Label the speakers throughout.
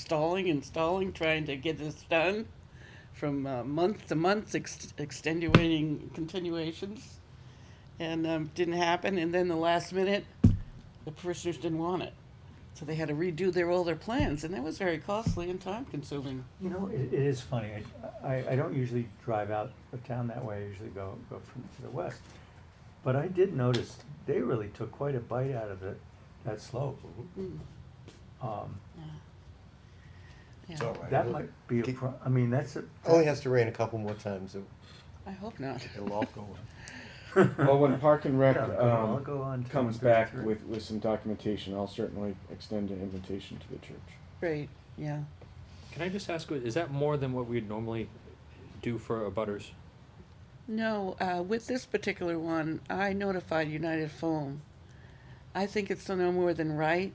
Speaker 1: stalling and stalling, trying to get this done from uh, month to month, ex- extenuating continuations, and um, didn't happen. And then the last minute, the parishioners didn't want it. So they had to redo their all their plans, and that was very costly and time consuming.
Speaker 2: You know, it, it is funny, I, I, I don't usually drive out of town that way, I usually go, go from to the west. But I did notice, they really took quite a bite out of that, that slope. Um,
Speaker 1: Yeah.
Speaker 3: It's all right.
Speaker 2: that
Speaker 3: It'll-
Speaker 2: might be a
Speaker 3: Keep-
Speaker 2: pro, I mean, that's a.
Speaker 4: Oh,
Speaker 3: Only has to rain a couple more times, it-
Speaker 1: I hope not.
Speaker 3: it'll all go away.
Speaker 4: Well, when Park and Rec
Speaker 2: Yeah, go- I'll
Speaker 4: um,
Speaker 2: go on to
Speaker 4: comes back
Speaker 2: 33.
Speaker 4: with, with some documentation, I'll certainly extend an invitation to the church.
Speaker 1: Great. Yeah.
Speaker 5: Can I just ask, is that more than what we'd normally do for abutters?
Speaker 1: No, uh, with this particular one, I notified United Foam. I think it's no more than right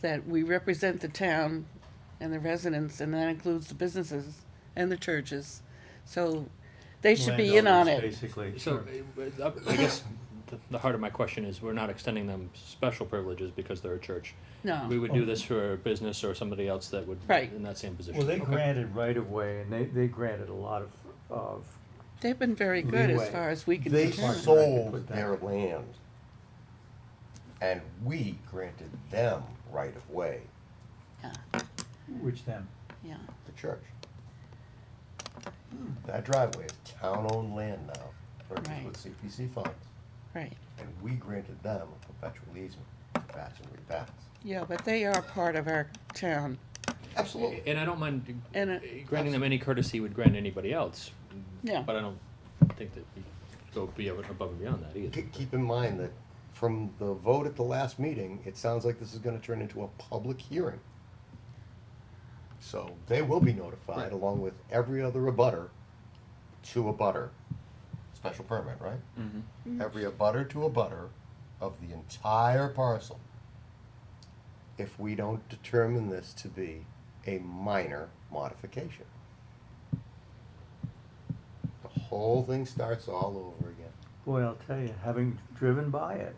Speaker 1: that we represent the town and the residents, and that includes the businesses and the churches. So they should be in on
Speaker 2: Landowners,
Speaker 1: it.
Speaker 2: Basically,
Speaker 5: So,
Speaker 2: sure.
Speaker 5: uh, uh, I guess the- the heart of my question is, we're not extending them special privileges because they're a church. We
Speaker 1: No,
Speaker 2: Oh.
Speaker 5: would do this for a business or somebody else that would,
Speaker 1: Right.
Speaker 5: in that same position.
Speaker 2: Well, they
Speaker 5: Okay.
Speaker 2: granted right of way and they, they granted a lot of, of,
Speaker 1: they've been very good as
Speaker 2: Leeway.
Speaker 1: far as we can
Speaker 3: They
Speaker 1: determine.
Speaker 2: so-
Speaker 3: sold their land, and we granted them right of way,
Speaker 1: Yeah,
Speaker 2: which them,
Speaker 1: yeah.
Speaker 3: the church. That driveway is town-owned land now, purchased
Speaker 1: Hmm. Right.
Speaker 3: with CPC funds,
Speaker 1: Right.
Speaker 3: and we granted them a perpetual easement to patch and repass.
Speaker 1: Yeah, but they are part of our town.
Speaker 3: Absolutely.
Speaker 5: And I don't mind
Speaker 1: And, uh,
Speaker 5: granting them any courtesy we'd grant anybody else,
Speaker 1: Yeah.
Speaker 5: but I don't think that we go be above and beyond that either.
Speaker 3: Keep, keep in mind that from the vote at the last meeting, it sounds like this is gonna turn into a public hearing. So they will be notified
Speaker 5: Right.
Speaker 3: along with every other abutter to a butter. Special permit, right? Every abutter to a butter of the entire parcel. If we don't determine this to be a minor modification. The whole thing starts all over again.
Speaker 2: boy, I'll tell you, having driven by it,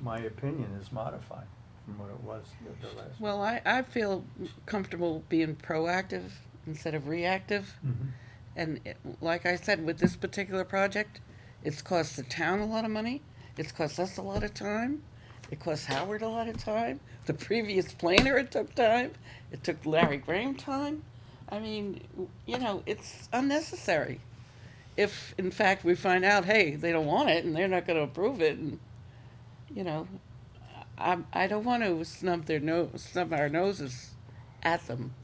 Speaker 2: my opinion is modified from what it was the- the last.
Speaker 1: Well, I, I feel comfortable being proactive instead of reactive.
Speaker 2: Mhm.
Speaker 1: And it- like I said, with this particular project, it's cost the town a lot of money, it's cost us a lot of time, it cost Howard a lot of time, the previous planner, it took time, it took Larry Graham time. I mean, w- you know, it's unnecessary. If, in fact, we find out, hey, they don't want it and they're not gonna approve it and, you know, I, I don't wanna snub their nose, snub our noses at them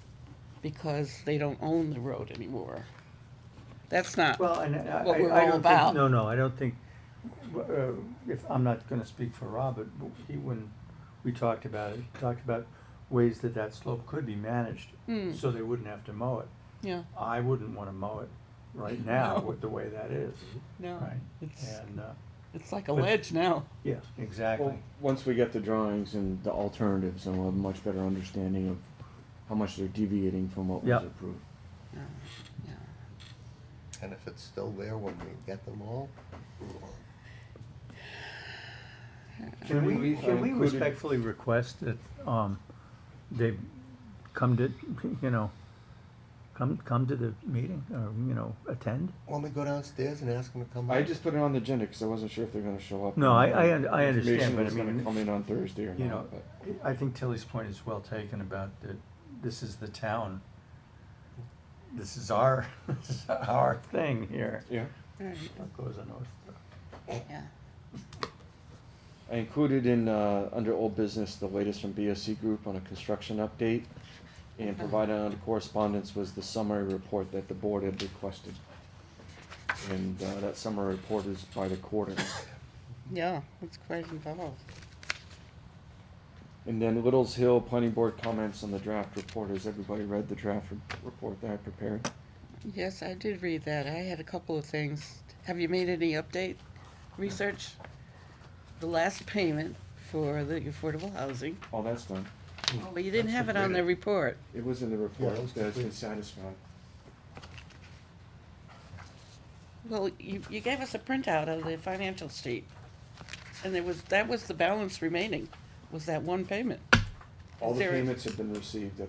Speaker 1: because they don't own the road anymore. That's not,
Speaker 2: Well, and uh, I,
Speaker 1: what we're
Speaker 2: I- I
Speaker 1: all
Speaker 2: don't
Speaker 1: about.
Speaker 2: think, no, no, I don't think, uh, if, I'm not gonna speak for Rob, but he, when we talked about it, he talked about ways that that slope could be managed,
Speaker 1: Mm.
Speaker 2: so they wouldn't have to mow it.
Speaker 1: yeah,
Speaker 2: I wouldn't wanna mow it right now
Speaker 1: No.
Speaker 2: with the way that is,
Speaker 1: no,
Speaker 2: right?
Speaker 1: it's,
Speaker 2: And, uh,
Speaker 1: it's like a
Speaker 2: but-
Speaker 1: ledge now.
Speaker 2: yeah, exactly.
Speaker 4: Well, once we get the drawings and the alternatives, then we'll have a much better understanding of how much they're deviating from what was
Speaker 2: Yep.
Speaker 4: approved.
Speaker 3: And if it's still there when we get them all,
Speaker 2: Can we,
Speaker 4: we-
Speaker 2: can we
Speaker 4: included-
Speaker 2: respectfully request that, um, they come to, you know, come, come to the meeting, or, you know, attend?
Speaker 3: when we go downstairs and ask them to come
Speaker 4: I
Speaker 3: up?
Speaker 4: just put it on the agenda because I wasn't sure if they're going to show up.
Speaker 2: No, I- I un-
Speaker 4: The
Speaker 2: I understand,
Speaker 4: information
Speaker 2: but I
Speaker 4: was gonna
Speaker 2: mean,
Speaker 4: come in on Thursday or
Speaker 2: You
Speaker 4: not,
Speaker 2: know,
Speaker 4: but
Speaker 2: I think Tilly's point is well taken about that this is the town. This is our, this is our thing here.
Speaker 4: yeah.
Speaker 1: Right,
Speaker 2: What goes on North Star?
Speaker 1: yeah.
Speaker 4: I included in, uh, under old business, the latest from BSC Group on a construction update. And provided under correspondence was the summary report that the board had requested. And, uh, that summary report is by the quarter.
Speaker 1: Yeah, it's quite involved.
Speaker 4: And then Little's Hill Planning Board comments on the draft report. Has everybody read the draft re- report that I prepared?
Speaker 1: Yes, I did read that. I had a couple of things. Have you made any update research? The last payment for the affordable housing.
Speaker 4: All that's done.
Speaker 1: Oh, But you didn't have it on the report.
Speaker 4: It was in the report.
Speaker 3: Yeah, it was
Speaker 4: that has been
Speaker 3: complete.
Speaker 4: satisfied.
Speaker 1: Well, you, you gave us a printout of the financial sheet. And there was, that was the balance remaining, was that one payment.
Speaker 4: All the
Speaker 1: Is there a-
Speaker 4: payments have been received at